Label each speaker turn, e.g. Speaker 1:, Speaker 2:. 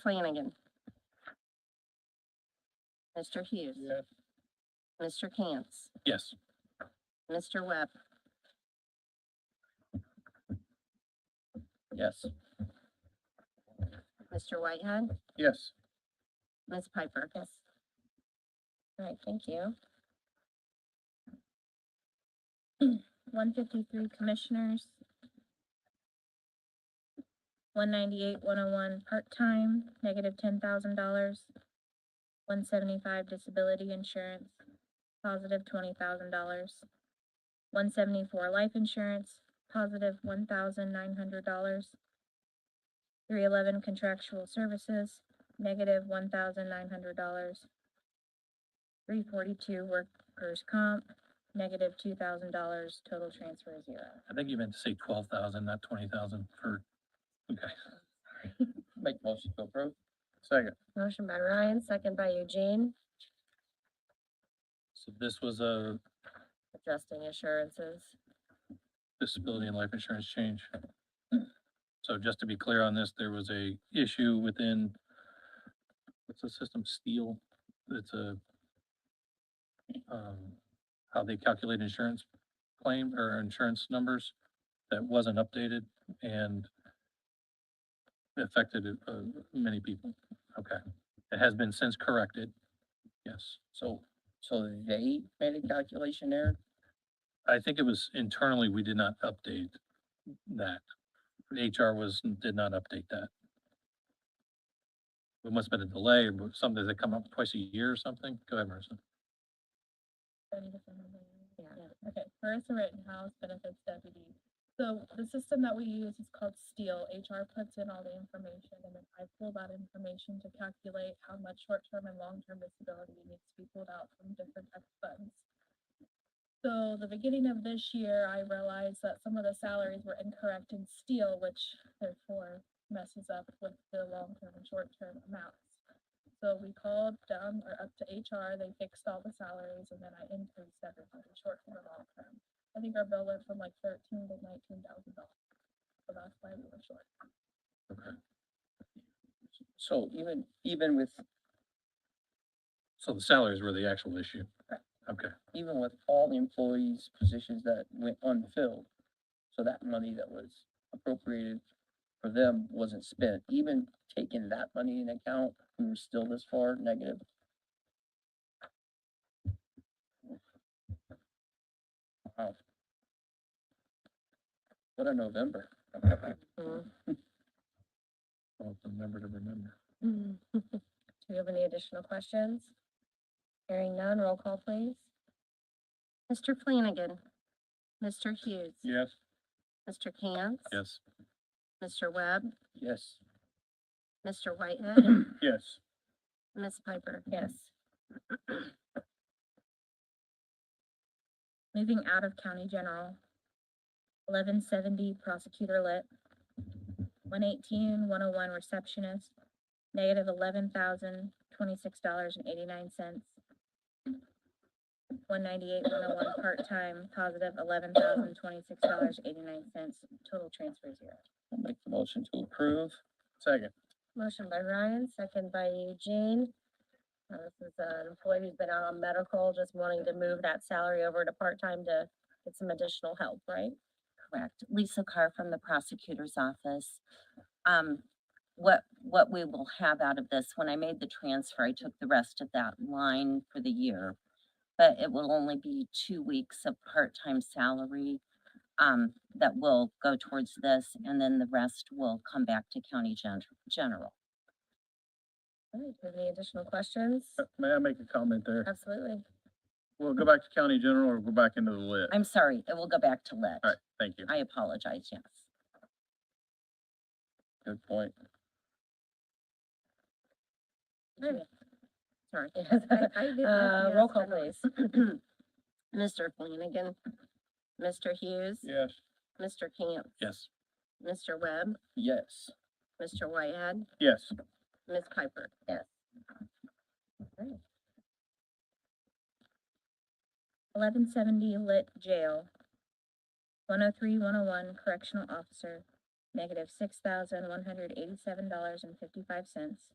Speaker 1: Flanagan. Mr. Hughes.
Speaker 2: Yes.
Speaker 1: Mr. Cantz.
Speaker 2: Yes.
Speaker 1: Mr. Webb.
Speaker 2: Yes.
Speaker 1: Mr. Whitehead.
Speaker 2: Yes.
Speaker 1: Ms. Piper. Yes. All right, thank you.
Speaker 3: one fifty-three commissioners. One ninety-eight, one oh one, part-time, negative ten thousand dollars. One seventy-five disability insurance, positive twenty thousand dollars. One seventy-four life insurance, positive one thousand nine hundred dollars. Three eleven contractual services, negative one thousand nine hundred dollars. Three forty-two workers' comp, negative two thousand dollars, total transfer is zero.
Speaker 2: I think you meant to say twelve thousand, not twenty thousand for, okay. Make motion to approve. Second.
Speaker 1: Motion by Ryan, second by Eugene,
Speaker 2: So this was a
Speaker 1: adjusting assurances.
Speaker 2: disability and life insurance change. So just to be clear on this, there was a issue within, what's the system, Steel? It's a, um, how they calculate insurance claim or insurance numbers that wasn't updated and affected, uh, many people. Okay. It has been since corrected. Yes. So
Speaker 4: So they made a calculation error?
Speaker 2: I think it was internally, we did not update that. HR was, did not update that. It must have been a delay, but something that come up twice a year or something. Go ahead, Marissa.
Speaker 1: Yeah.
Speaker 3: Okay, Marissa Rittenhouse, benefits deputy. So the system that we use is called STEEL. HR puts in all the information and then I pull that information to calculate how much short-term and long-term disability needs to be pulled out from different types of funds. So the beginning of this year, I realized that some of the salaries were incorrect in STEEL, which therefore messes up with the long-term and short-term amounts. So we called down or up to HR, they fixed all the salaries and then I increased everything short term and long term. I think our bill went from like thirteen to nineteen thousand dollars. So that's why we were short.
Speaker 4: So even, even with,
Speaker 2: So the salaries were the actual issue.
Speaker 3: Correct.
Speaker 2: Okay,
Speaker 4: even with all the employees' positions that went unfilled, so that money that was appropriated for them wasn't spent, even taking that money in account, we were still this far negative. Wow. What a November.
Speaker 1: Mm.
Speaker 2: well, remember to remember.
Speaker 1: Do we have any additional questions? Hearing none, roll call please. Mr. Flanagan. Mr. Hughes.
Speaker 2: Yes.
Speaker 1: Mr. Cantz.
Speaker 2: Yes.
Speaker 1: Mr. Webb.
Speaker 4: Yes.
Speaker 1: Mr. Whitehead.
Speaker 2: Yes.
Speaker 1: Ms. Piper.
Speaker 3: Yes. Moving out of county general. Eleven seventy prosecutor lit. 118, 101 receptionist, negative eleven thousand twenty-six dollars and eighty-nine cents. One ninety-eight, one oh one, part-time, positive eleven thousand twenty-six dollars, eighty-nine cents, total transfer zero.
Speaker 4: I'll make the motion to approve.
Speaker 2: Second.
Speaker 1: Motion by Ryan, second by Eugene. Uh, This is an employee who's been out on medical, just wanting to move that salary over to part-time to get some additional help, right?
Speaker 5: Correct. Lisa Carr from the prosecutor's office. Um, what, what we will have out of this, when I made the transfer, I took the rest of that line for the year. But it will only be two weeks of part-time salary, um, that will go towards this, and then the rest will come back to county gen- general.
Speaker 1: All right, any additional questions?
Speaker 2: Uh, May I make a comment there?
Speaker 1: Absolutely.
Speaker 2: We'll go back to county general or go back into the lit.
Speaker 5: I'm sorry, it will go back to lit.
Speaker 2: thank you.
Speaker 5: I apologize, yes.
Speaker 4: Good point.
Speaker 1: Sorry.
Speaker 3: I did
Speaker 1: Uh, roll
Speaker 3: nothing else,
Speaker 1: call
Speaker 3: I don't-
Speaker 1: please. Mr. Flanagan, Mr. Hughes,
Speaker 2: Yes.
Speaker 1: Mr. Camp,
Speaker 2: Yes.
Speaker 1: Mr. Webb,
Speaker 4: Yes.
Speaker 1: Mr. Whitehead,
Speaker 2: Yes.
Speaker 1: Ms. Piper. Yes.
Speaker 3: Eleven seventy lit jail. One oh three, one oh one correctional officer, negative six thousand one hundred eighty-seven dollars and fifty-five cents.